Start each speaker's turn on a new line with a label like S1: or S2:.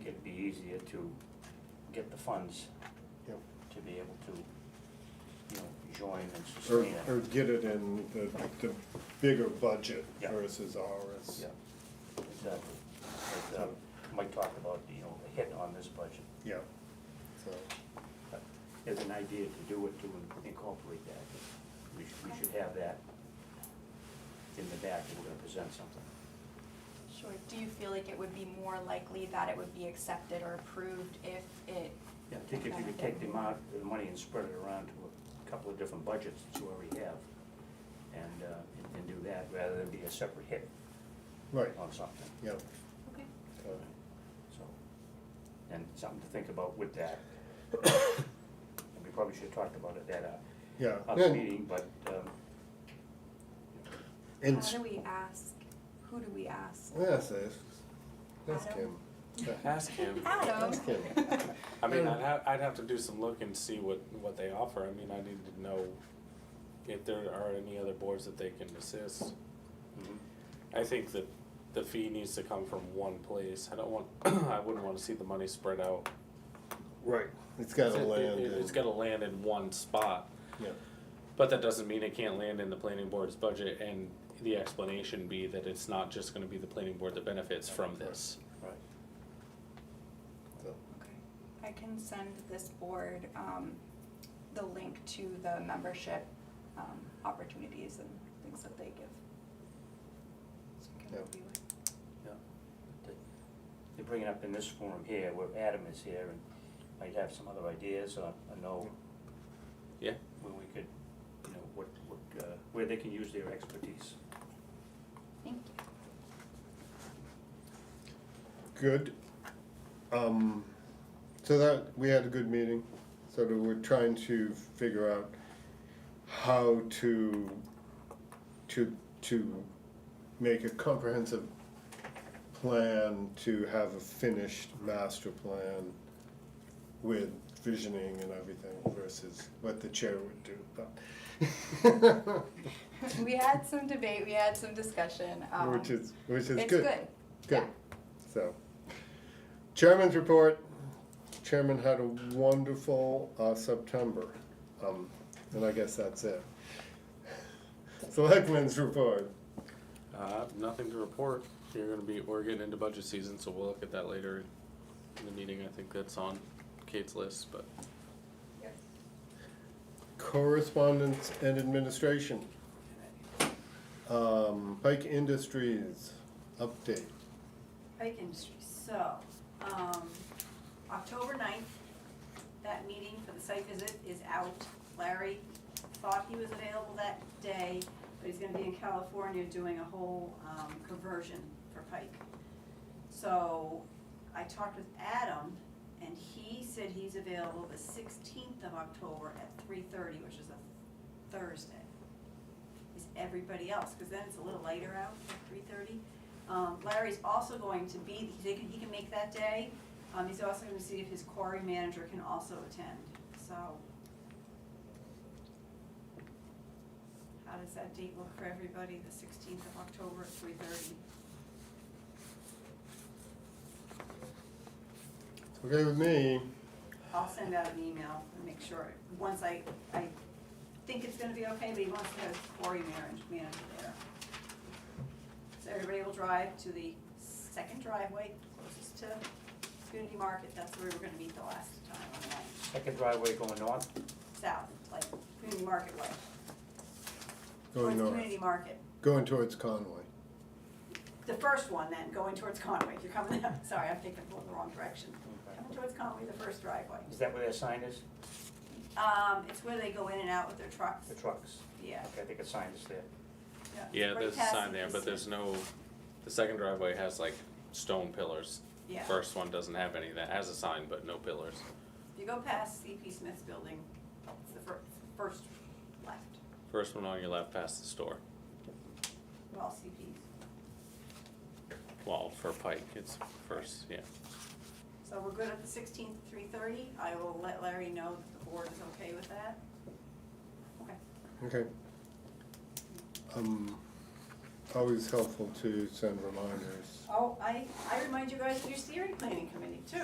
S1: easier to get the funds
S2: Yep.
S1: to be able to, you know, join and
S2: Or,
S1: sustain
S2: or
S1: it.
S2: get it in the, the bigger budget
S1: Yeah.
S2: versus ours.
S1: Yeah, exactly. But, uh, Mike talked about, you know, the hit on this budget.
S2: Yeah, so,
S1: But As an idea to do it, to in- incorporate that, we should, we should have that in the back if we're gonna present something.
S3: Sure. Do you feel like it would be more likely that it would be accepted or approved if it?
S1: Yeah, I think if you could take the amount, the money and spread it around to a couple of different budgets that you already have, and, uh, and- and do that, rather than be a separate hit
S2: right,
S1: on something,
S2: yeah.
S3: Okay.
S2: so,
S1: so. And something to think about with that. And we probably should have talked about it at a,
S2: Yeah,
S1: other
S2: and,
S1: meeting, but, um,
S2: and,
S3: How
S2: s-
S3: do we ask? Who do we ask?
S2: yes, ask- ask him.
S3: Adam?
S4: Ask him.
S3: Adam.
S2: Ask him.
S4: I mean,
S2: Yeah.
S4: I'd have, I'd have to do some look and see what, what they offer. I mean, I need to know if there are any other boards that they can assist.
S1: mhm.
S4: I think that the fee needs to come from one place. I don't want, I wouldn't wanna see the money spread out.
S2: Right, it's gotta
S4: It- it-
S2: land
S4: it- It's
S2: in,
S4: gotta land in one spot,
S2: yeah,
S4: but that doesn't mean it can't land in the planning board's budget and the explanation be that it's not just gonna be the planning board that benefits from this.
S1: right.
S2: so,
S3: Okay. I can send this board um, the link to the membership um, opportunities and things that they give. So we can
S2: Yeah.
S3: review it.
S1: They bring it up in this forum here, where Adam is here, and might have some other ideas, or, or know.
S4: Yeah.
S1: Where we could, you know, what, what, uh, where they can use their expertise.
S3: Thank you.
S2: good. Um, so that, we had a good meeting, so that we're trying to figure out how to, to, to make a comprehensive plan to have a finished master plan with visioning and everything versus what the chair would do, but.
S3: We had some debate, we had some discussion. um,
S2: Which is, which is
S3: It's
S2: good.
S3: good.
S2: Good, so. Chairman's report, chairman had a wonderful, uh, September, um, and I guess that's it. Selectmen's report,
S4: Uh, nothing to report. You're gonna be, we're getting into budget season, so we'll look at that later in the meeting. I think that's on Kate's list, but
S2: correspondence and administration. Um, Pike Industries update,
S5: Pike Industries, so, um, October ninth, that meeting for the site visit is out. Larry thought he was available that day, but he's gonna be in California doing a whole, um, conversion for Pike. So, I talked with Adam, and he said he's available the sixteenth of October at three thirty, which is a Thursday. Is everybody else, cause then it's a little later out, three thirty? Um, Larry's also going to be, he can, he can make that day, um, he's also gonna see if his quarry manager can also attend, so. How does that date look for everybody, the sixteenth of October at three thirty?
S2: okay with me,
S5: I'll send out an email and make sure, once I, I think it's gonna be okay, but he wants to have his quarry manager, manager there. So everybody will drive to the second driveway closest to community market, that's where we were gonna meet the last time on that.
S1: Second driveway going north,
S5: south, like community market way.
S2: going
S5: towards
S2: north,
S5: Community market.
S2: going towards Conway.
S5: The first one then, going towards Conway, if you're coming, I'm sorry, I'm thinking going the wrong direction.
S1: Okay.
S5: Coming towards Conway, the first driveway.
S1: is that where their sign is?
S5: Um, it's where they go in and out with their trucks,
S1: The trucks?
S5: yeah.
S1: Okay, I think a sign is there.
S4: yeah,
S5: Right
S4: there's a
S5: past
S4: sign
S5: the
S4: there, but
S5: PC.
S4: there's no, the second driveway has like stone pillars.
S5: Yeah, if
S4: First one doesn't have any, that has a sign, but no pillars.
S5: you go past CP Smith's building, it's the fir- first left,
S4: First one on your left past the store.
S5: well, CP's.
S4: Well, for Pike, it's first, yeah.
S5: So we're good at the sixteenth, three thirty, I will let Larry know that the board is okay with that. Okay.
S2: Okay. Um, always helpful to send reminders.
S5: Oh, I, I remind you guys of your steering planning committee too.